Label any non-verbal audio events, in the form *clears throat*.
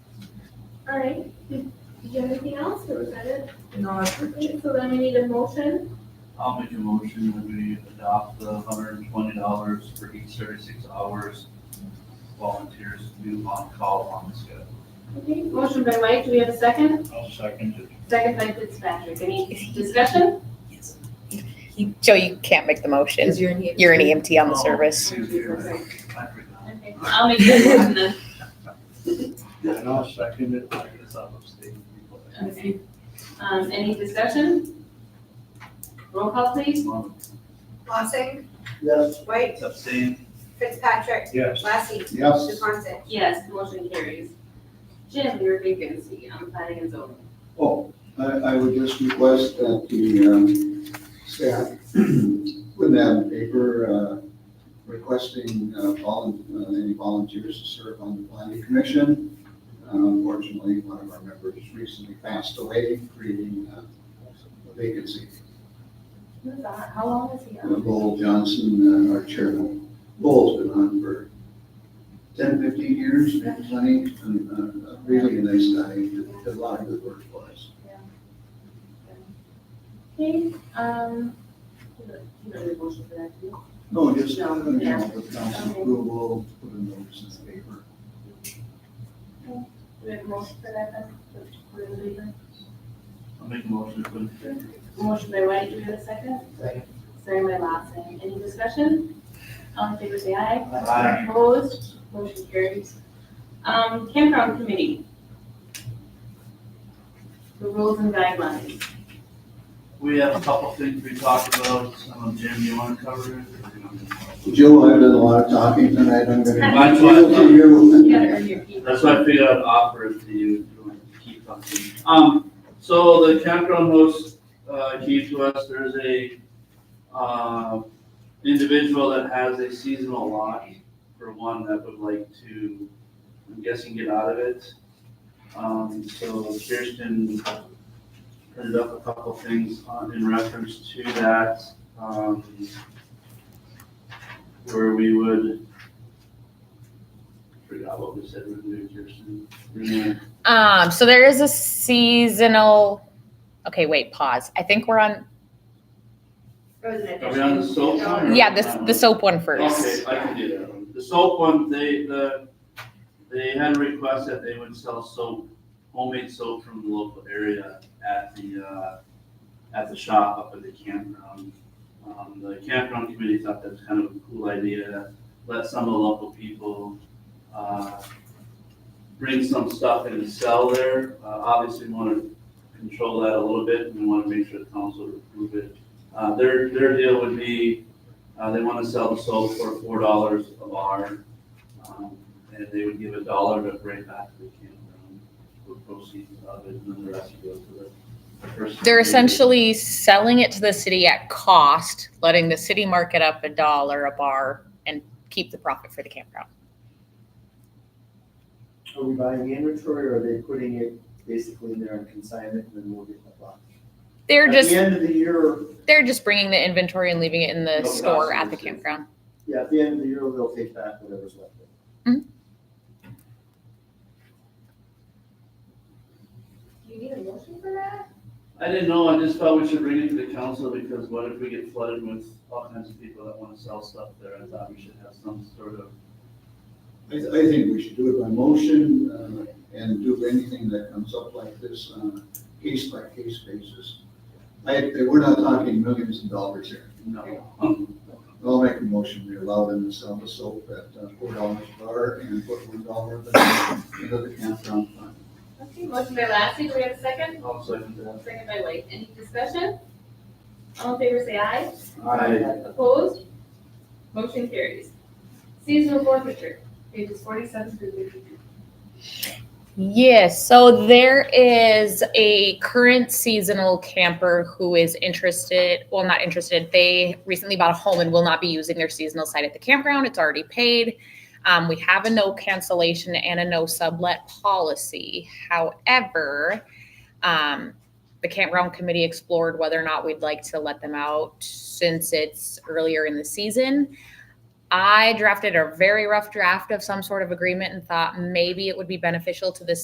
All right, did did you have anything else, or was that it? No, that's pretty much it. Okay, So then we need a motion, I'll make a motion that we adopt the hundred and twenty dollars for each thirty-six hours volunteers do on-call on the schedule. okay, motion by Mike, do we have a second? I'll second it. Second by Fitzpatrick, any discussion? Joe, you can't make the motion. Because you're in here. You're an EMT on the Oh, service. excuse me, I forgot. Okay, I'll make that motion then. And I'll second it, I guess I'll abstain. Okay. Um, any discussion? Roll call please. Well, Lossing, Yes. White, Abstain. Fitzpatrick, Yes. Lassie, Yes. Johnson. Yes, motion carries. Jim, your vacancy on planning and zoning. Oh, I, I would just request that the, um, staff, *clears throat* wouldn't have a paper, uh, requesting, uh, volun, uh, any volunteers to serve on the planning commission. Uh, Unfortunately, one of our members recently passed away, creating, uh, a vacancy. How long is he Uh, Lowell Johnson, uh, our chairman, Lowell's been on for 10, 15 years, and plenty, and, uh, really a nice guy, did did a lot of good work for us. Okay, um, you don't- you don't need a motion for that, do you? No, just, you No, know, yeah. the council Okay. approval, put a notice in the paper. Do we have a motion for that then? For the leader? I'll make a motion to put it in. Motion by White, do we have a second? Second. Second by Lawson, any discussion? All in favor say aye. Aye. Opposed, motion carries. Um, campground committee. The rules and guidelines. We have a couple things we talked about, um, Jim, you wanna cover it? or you want me to? Joe, I've done a lot of talking tonight, I'm gonna. Mine's fine. To you. You gotta earn your keep. That's why I figured I'd offer it to you, if you want to keep talking. Um, so the campground host, uh, came to us, there's a, uh, individual that has a seasonal lot for one that would like to, I'm guessing, get out of it. Um, so Kirsten printed up a couple things on, in reference to that, um, where we would, forgot what we said, we're gonna do, Kirsten. We're gonna- Um, so there is a seasonal, okay, wait, pause. I think we're on, Are we on the soap one? or- yeah, this, the soap one first. Okay, I can do that one. The soap one, they, the, they had a request that they would sell soap, homemade soap from the local area at the, uh, at the shop up at the campground. Um, the campground committee thought that was kind of a cool idea, let some of the local people, uh, bring some stuff in and sell there. Uh, obviously, we wanna control that a little bit, and we wanna make sure the council would approve it. Uh, their, their deal would be, uh, they want to sell the soap for four dollars a bar. um, And they would give a dollar to bring back to the campground for proceeds of it, and then the rest goes to the person. They're essentially selling it to the city at cost, letting the city mark it up a dollar a bar and keep the profit for the campground. Are we buying the inventory or are they putting it basically in there on consignment and then we'll get the box? They're At the just, end of the year, they're just bringing the inventory and leaving it in the No store cost, at the it's- campground. yeah, at the end of the year, they'll take back whatever's left. over. Do you need a motion for that? I didn't know, I just thought we should bring it to the council, because what if we get flooded with all kinds of people that want to sell stuff there? I thought we should have some sort of, I, I think we should do it by motion, uh, and do anything that comes up like this uh, on a case-by-case basis. I, we're not talking millions of dollars here. no. um, I'll make a motion, we allow them to sell the soap at uh, four dollars a bar and put one dollar of the, into the campground fund. Okay, motion by Lassie, do we have a second? I'll second that. Second by White, any discussion? All in favor say aye. I, Opposed? Motion carries. Seasonal forfeiture, pages forty-seven through fifty-two. Yes, so there is a current seasonal camper who is interested, well, not interested. They recently bought a home and will not be using their seasonal site at the campground. It's already paid. Um, we have a no cancellation and a no sublet policy. However, um, the campground committee explored whether or not we'd like to let them out since it's earlier in the season. I drafted a very rough draft of some sort of agreement and thought maybe it would be beneficial to this